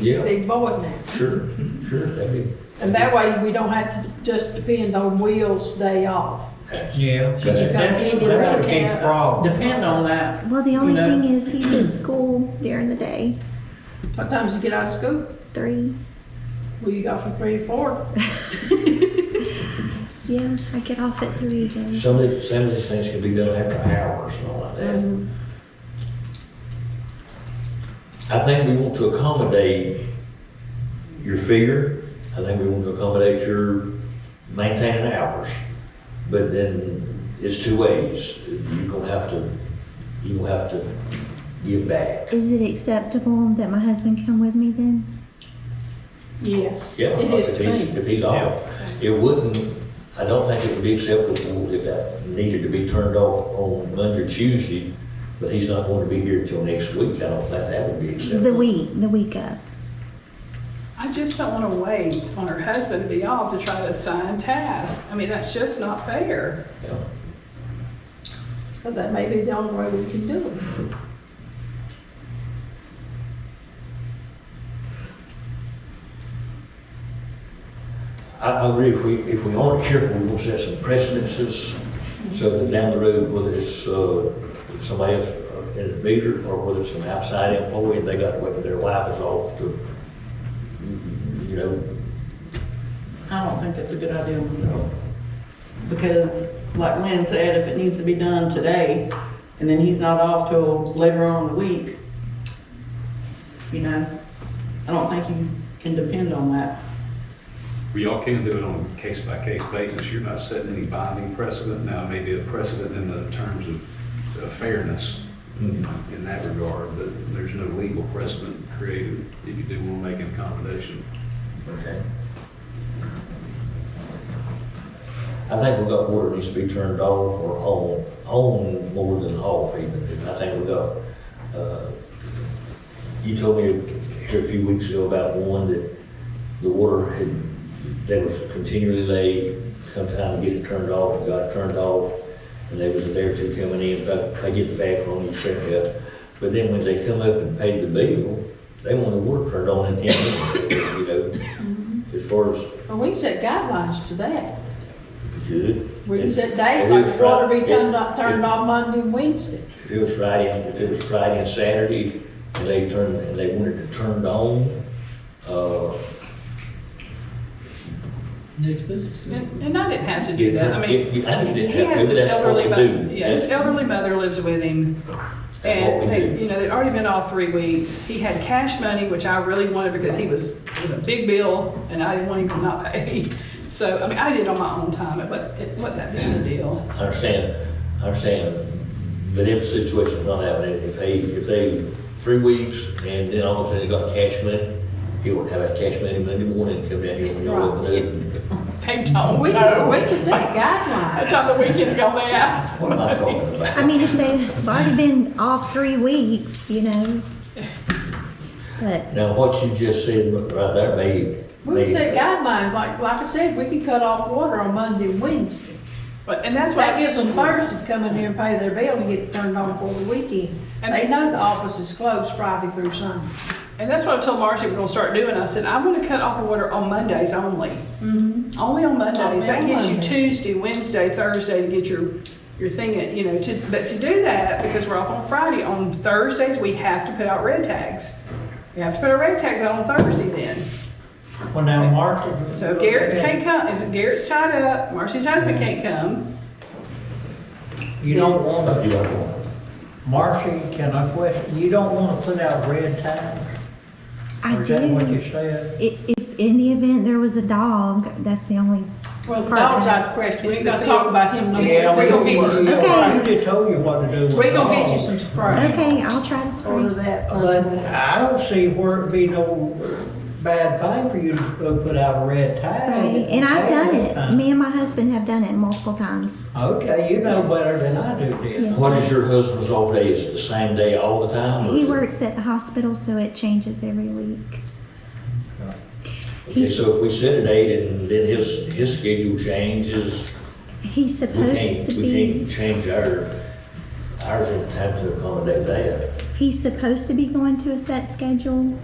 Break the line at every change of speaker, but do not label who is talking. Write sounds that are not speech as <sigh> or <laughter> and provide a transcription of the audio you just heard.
Yeah,
big board now.
sure, sure, that'd be.
And that way, we don't have to just depend on Will's day off.
Yeah.
That's-
That's that's a big problem.
Depend on that.
Well, the only
You know?
thing is he's in school during the day,
What times you get out of school?
three.
Well, you got from three to four.
Yeah, I get off at three then.
Some of, the- some of these things can be done after hours and all like that.
Mm-hmm.
Um,
I think we want to accommodate your figure, I think we want to accommodate your maintaining hours. But then it's two ways, you're gonna have to, you're gonna have to give back.
Is it acceptable that my husband come with me then?
Yes,
Yeah,
it is
if
to
he's,
me.
if he's off, it wouldn't, I don't think it would be acceptable if that needed to be turned off on Monday or Tuesday, but he's not going to be here until next week, I don't think that would be acceptable.
The week, the week of.
I just don't want to wait on her husband to be off to try to assign tasks. I mean, that's just not fair.
Yeah.
So that may be the only way we can do it.
I, I agree, if we, if we aren't careful, we will set some precedences, so that down the road, whether it's, uh, somebody else uh, in a meter, or whether it's an outside employee, they got, whether their wife is off to, you know,
I don't think it's a good idea myself. Because like Lynn said, if it needs to be done today and then he's not off till later on in the week, you know, I don't think you can depend on that.
Well, y'all can do it on a case-by-case basis. You're not setting any binding precedent. Now, maybe a precedent in the terms of uh, fairness in that regard, but there's no legal precedent created if you do want to make an accommodation.
Okay. I think we got water needs to be turned off or on, on more than off even. I think we got, uh, you told me here a few weeks ago about one that the water had, that was continually late, sometime get it turned off, got it turned off, and they was a day or two coming in, but they get the fact on you shut up. But then when they come up and pay the bill, they want the water turned on in ten minutes, you know, as far as
And we can set guidelines to that.
good.
We can set
If
days,
it was
like water
Fri-
be turned
if-
off, turned off Monday and Wednesday.
If it was Friday, and- if it was Friday and Saturday, and they turned, and they wanted it turned on, uh,
And and I didn't have to
you
do that. I
turn-
mean,
you- I think
he
it had,
has
maybe
his
that's
elderly,
what
mo-
we do.
yeah, his
That's-
elderly mother lives with him.
That's what
And
we
they,
do.
you know, they'd already been off three weeks. He had cash money, which I really wanted because he was, it was a big bill and I didn't want him to not pay. <laughs> So, I mean, I did it on my own time, but it wasn't that big of a deal.
I understand, I understand, but if the situation's not happening, if they, if they, three weeks, and then all of a sudden they got cash money, he won't have that cash money Monday morning, come down here when you're open up.
Paid all
We
week.
can, we can set guidelines.
<laughs> I tried the weekend to go there.
What am I talking about?
I mean, if they've already been off three weeks, you know. But
Now, what you just said right there made,
We can set
made,
guidelines, like, like I said, we can cut off water on Monday and Wednesday.
But, and that's why
That gives them Thursday to come in here and pay their bill and get it turned on for the weekend. And they know the office is closed Friday through Sunday.
And that's what I told Marcy we're gonna start doing. I said, I'm gonna cut off the water on Mondays only. Only on Mondays.
Mm-hmm. Only
That
on
gives you
Monday.
Tuesday, Wednesday, Thursday to get your, your thing, at, you know, to, but to do that, because we're off on Friday, on Thursdays, we have to put out red tags. We have to put our red tags out on Thursday then.
Well, now, Mark.
So if Garrett can't come, if Garrett's tied up, Marcy's husband can't come.
You don't
Oh,
want
you
to,
don't want it.
Marcy, can I question, you don't want to put out red tags?
I
Is that what
do,
you said?
if, if in the event there was a dog, that's the only,
Well, the
Right.
dog's out of question, we ain't gonna talk about him no more.
Yeah,
We
we
gonna get you,
I just told you what to do with
we gonna get you
dogs.
some spray.
okay, I'll try to
Order
spray.
that
But
first.
I don't see where it'd be no bad thing for you to go put out a red tag.
Right, And I've done it. Me and my husband have done it multiple times.
Okay, you know better than I do, dear.
Yes.
What is your husband's off day, is it the same day all the time? or
He
is it-
works at the hospital, so it changes every week.
Okay,
He's,
so if we set a date and then his, his schedule changes,
he's
we
supposed
can't,
to
we
be,
can't change our, ours in time to accommodate that.
he's supposed to be going to a set schedule,